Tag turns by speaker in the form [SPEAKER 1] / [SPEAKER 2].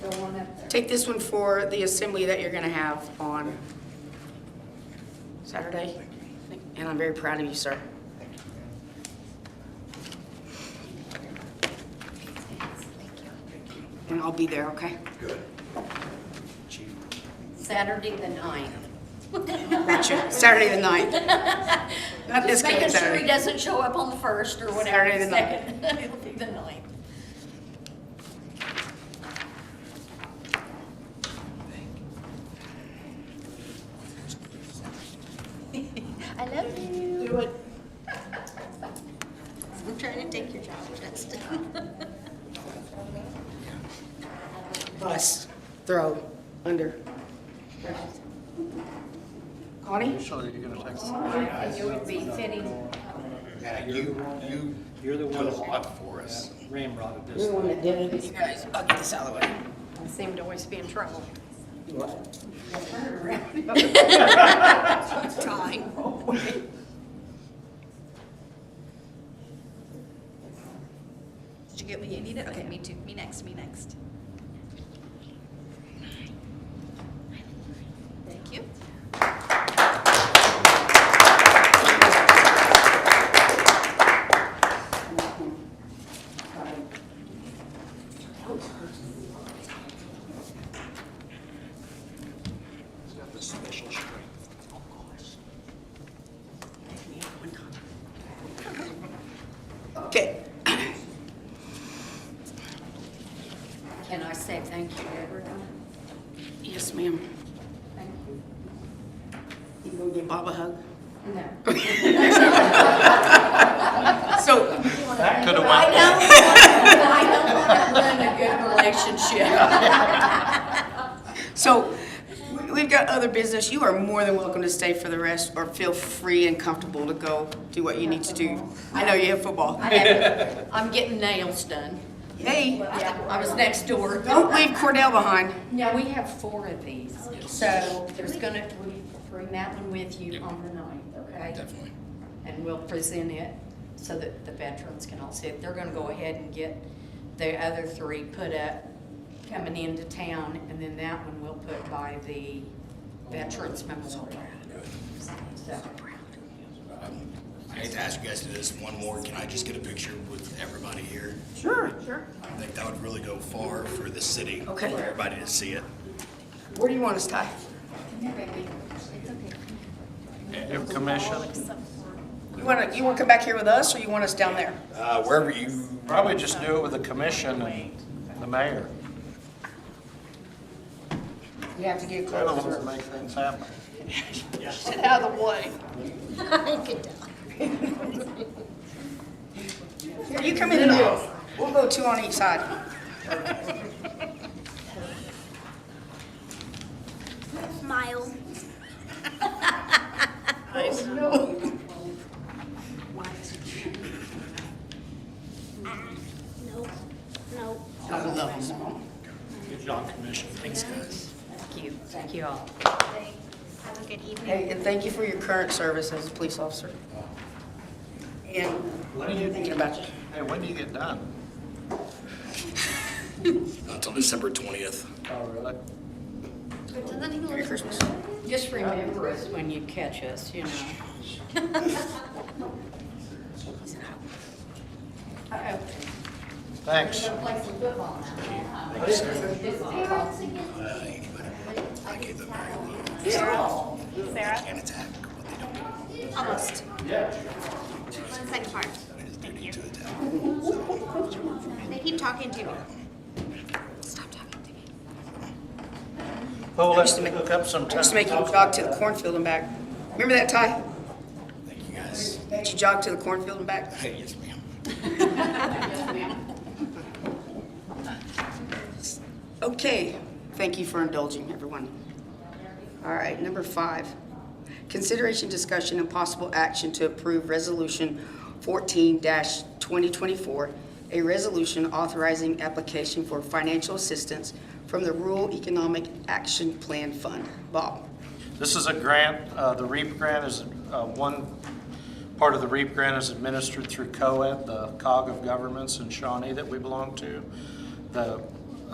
[SPEAKER 1] Take this one for the assembly that you're gonna have on Saturday. And I'm very proud of you, sir. And I'll be there, okay?
[SPEAKER 2] Saturday the ninth.
[SPEAKER 1] Gotcha. Saturday the ninth. Not this
[SPEAKER 2] Just
[SPEAKER 1] coming
[SPEAKER 2] making sure he
[SPEAKER 1] Saturday.
[SPEAKER 2] doesn't show up on the first or whatever,
[SPEAKER 1] Saturday the
[SPEAKER 2] the
[SPEAKER 1] ninth.
[SPEAKER 2] second. It'll be the ninth. I love you.
[SPEAKER 1] Do it.
[SPEAKER 2] I'm trying to take your job, Justin.
[SPEAKER 1] Bus, throw, under. Connie?
[SPEAKER 3] So you're gonna take.
[SPEAKER 2] It would be fitting.
[SPEAKER 4] Yeah, you, you.
[SPEAKER 3] You're the
[SPEAKER 4] Done a
[SPEAKER 3] ones-
[SPEAKER 4] lot for us.
[SPEAKER 3] Ramrod
[SPEAKER 1] You're the
[SPEAKER 3] this.
[SPEAKER 1] one that did it. You guys, I'll get this out of the way.
[SPEAKER 2] Seem to always be in trouble. Time.
[SPEAKER 5] Did you get what you needed? Okay, me too. Me next, me next. Thank you.
[SPEAKER 1] Okay.
[SPEAKER 2] Can I say thank you, everyone?
[SPEAKER 1] Yes, ma'am.
[SPEAKER 2] Thank you.
[SPEAKER 1] You go give Bob a hug.
[SPEAKER 2] No.
[SPEAKER 1] So,
[SPEAKER 3] That could have
[SPEAKER 2] I don't, I don't want to ruin a good relationship.
[SPEAKER 1] so we- we've got other business. You are more than welcome to stay for the rest or feel free and comfortable to go do what you need to do. I know you have football.
[SPEAKER 2] I have- I'm getting nails done.
[SPEAKER 1] Hey,
[SPEAKER 2] Yeah, I was next door.
[SPEAKER 1] don't leave Cordell behind.
[SPEAKER 2] Now, we have four of these, so there's gonna, we bring that one with you on the ninth, okay?
[SPEAKER 4] Definitely.
[SPEAKER 2] And we'll present it so that the veterans can all see it. They're gonna go ahead and get the other three put up coming into town, and then that one we'll put by the Veterans Memorial. So,
[SPEAKER 4] I hate to ask you guys to do this one more. Can I just get a picture with everybody here?
[SPEAKER 1] Sure. Sure.
[SPEAKER 4] I think that would really go far for the city.
[SPEAKER 1] Okay.
[SPEAKER 4] For everybody to see it.
[SPEAKER 1] Where do you want us, Ty?
[SPEAKER 3] Commission,
[SPEAKER 1] You wanna, you wanna come back here with us or you want us down there?
[SPEAKER 4] Uh, wherever you,
[SPEAKER 3] probably just do it with the commission and the mayor.
[SPEAKER 1] You have to get
[SPEAKER 3] They're the ones
[SPEAKER 1] closer.
[SPEAKER 3] that make things happen.
[SPEAKER 1] Get out of the way. Here, you come in and out. We'll go two on each side.
[SPEAKER 5] Smile. No, no.
[SPEAKER 4] good job, commission. Thanks, guys.
[SPEAKER 2] thank you, thank you all.
[SPEAKER 5] Have a good evening.
[SPEAKER 1] Hey, and thank you for your current service as a police officer. And thinking about you.
[SPEAKER 3] Hey, when do you get done?
[SPEAKER 4] Until December twentieth.
[SPEAKER 3] Oh, really?
[SPEAKER 1] Merry Christmas.
[SPEAKER 2] Just remember us when you catch us, you know. Uh-oh.
[SPEAKER 3] Thanks.
[SPEAKER 2] Play some football now.
[SPEAKER 4] I gave them very little.
[SPEAKER 5] Sarah?
[SPEAKER 4] Can't attack what they don't do.
[SPEAKER 5] Almost. One second part. Thank you.
[SPEAKER 4] To attack.
[SPEAKER 5] They keep talking to me. Stop talking to me.
[SPEAKER 3] Well, let's hook up some
[SPEAKER 1] I used to make you jog to the cornfield and back. Remember that, Ty?
[SPEAKER 4] Thank you, guys.
[SPEAKER 1] Did you jog to the cornfield and back?
[SPEAKER 4] Hey, yes, ma'am.
[SPEAKER 1] Okay, thank you for indulging, everyone. All right, number five, consideration, discussion, and possible action to approve Resolution 14-2024, a resolution authorizing application for financial assistance from the Rural Economic Action Plan Fund. Bob?
[SPEAKER 3] This is a grant, uh, the REAP grant is, uh, one part of the REAP grant is administered through COED, the cog of governments in Shawnee that we belong to. The